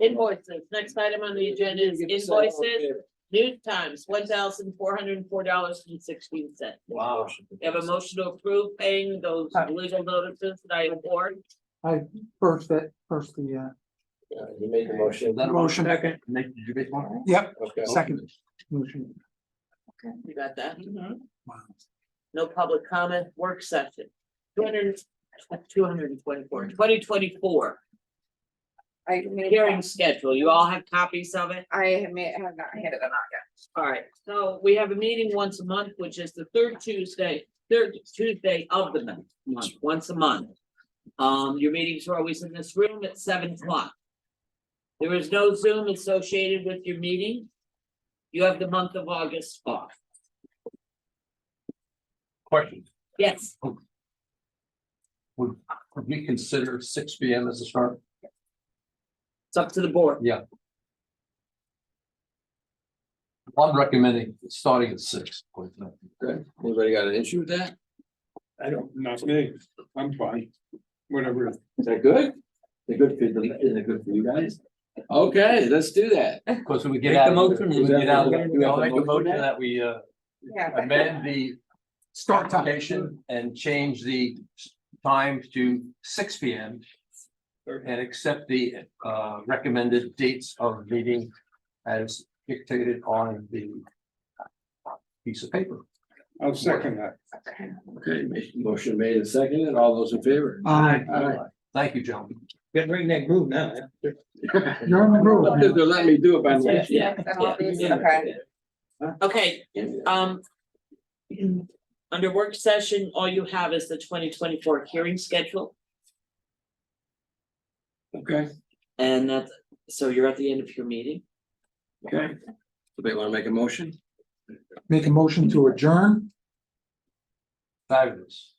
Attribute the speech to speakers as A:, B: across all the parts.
A: Invoices, next item on the agenda is invoices, new times, one thousand four hundred and four dollars and sixteen cents.
B: Wow.
A: We have a motion to approve paying those legal notices that I award.
C: First, that, first the,
B: Uh, You made the motion.
C: uh, motion,
D: Nick, did you make one?
C: yep,
B: Okay.
C: second motion.
A: You got that?
C: Wow.
A: No public comment, work session. 200 224 2024,
E: I made,
A: hearing schedule. You all have copies of it?
E: I may have not handed them out
A: All right, so we have a meeting once a month, which is the third Tuesday, third Tuesday of the month, month, once a month. Um, your meetings are always in this room at seven o'clock. There is no Zoom associated with your meeting. You have the month of August off.
D: Question,
A: Yes,
D: would we consider six P M as a start?
A: it's up to the board.
D: I'm recommending starting at six.
B: Okay. Anybody got an issue with that?
F: I don't, not me, I'm fine, whatever.
B: Is that good? They're good for the, is it good for you guys? Okay, let's do that.
D: Because we get
B: Make the
D: out. of-
B: motion.
D: we get out of-
B: Do we have
D: I'll
B: a
D: make a
B: motion
D: motion
B: now?
D: that we uh,
E: yet. Yeah.
D: amend the
C: Start time,
D: application and change the s- time to six P M. And accept the uh, recommended dates of meeting as dictated on the piece of paper.
F: I'll second that.
B: Okay, ma- motion made and seconded. All those in favor?
C: aye,
B: Alright.
D: Thank you, gentlemen.
F: Get ring that groove now.
C: you're in the room.
B: They're letting me do it by next year.
E: And all these, okay,
A: Okay, um. Under work session, all you have is the twenty twenty-four hearing schedule,
B: Okay,
A: and that's, so you're at the end of your meeting.
B: okay. Somebody wanna make a motion?
C: Make a motion to adjourn,
D: Fabulous.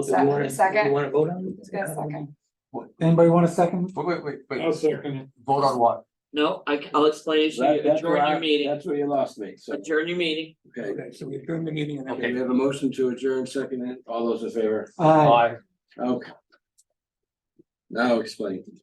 E: Se- second,
B: wanna vote on
E: It's got a second,
D: Wait,
C: anybody want a second?
D: wait, wait,
F: I'll
D: wait.
F: second it.
D: Vote on what?
A: No, I, will explain it to
B: That,
A: you,
B: that's where
A: adjourn
B: I,
A: your meeting,
B: that's where you lost me, so,
A: adjourn your meeting.
B: okay.
C: so we adjourn the meeting. and-
B: Okay, we have a motion to adjourn, seconded. All those in favor?
C: Aye.
D: Aye.
B: Okay. Now explain.
A: Oh,